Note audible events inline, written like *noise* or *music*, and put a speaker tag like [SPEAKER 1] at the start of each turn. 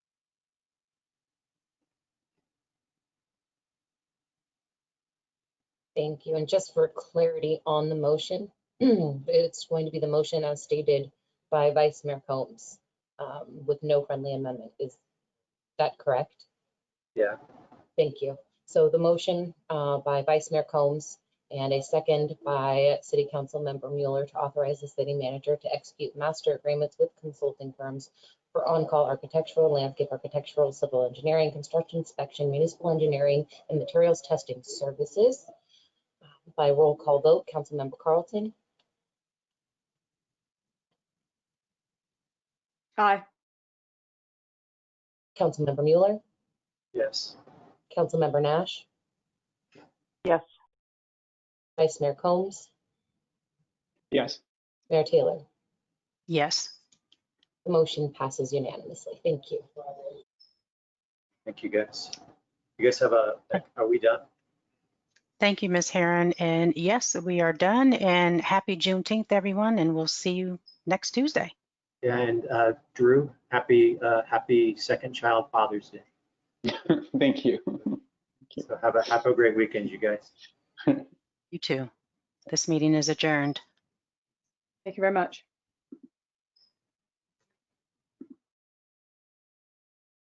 [SPEAKER 1] Thank you. And just for clarity on the motion, *clears throat* it's going to be the motion as stated by Vice Mayor Combs um, with no friendly amendment. Is that correct?
[SPEAKER 2] Yeah.
[SPEAKER 1] Thank you. So the motion uh, by Vice Mayor Combs and a second by City Council Member Mueller to authorize the city manager to execute master agreements with consulting firms for on-call architectural, landscape architectural, civil engineering, construction inspection, municipal engineering, and materials testing services. By roll call vote, Councilmember Carlton,
[SPEAKER 3] Aye.
[SPEAKER 1] Councilmember Mueller,
[SPEAKER 2] Yes.
[SPEAKER 1] Councilmember Nash.
[SPEAKER 3] Yes.
[SPEAKER 1] Vice Mayor Combs,
[SPEAKER 2] Yes.
[SPEAKER 1] Mayor Taylor.
[SPEAKER 3] Yes.
[SPEAKER 1] The motion passes unanimously. Thank you.
[SPEAKER 2] Thank you, guys. You guys have a, are we done?
[SPEAKER 4] Thank you, Ms. Heron. And yes, we are done. And happy Juneteenth, everyone. And we'll see you next Tuesday.
[SPEAKER 2] And uh, Drew, happy, uh, happy second child Father's Day.
[SPEAKER 5] *laughs* Thank you.
[SPEAKER 2] So have a, have a great weekend, you guys.
[SPEAKER 4] You too. This meeting is adjourned.
[SPEAKER 3] Thank you very much.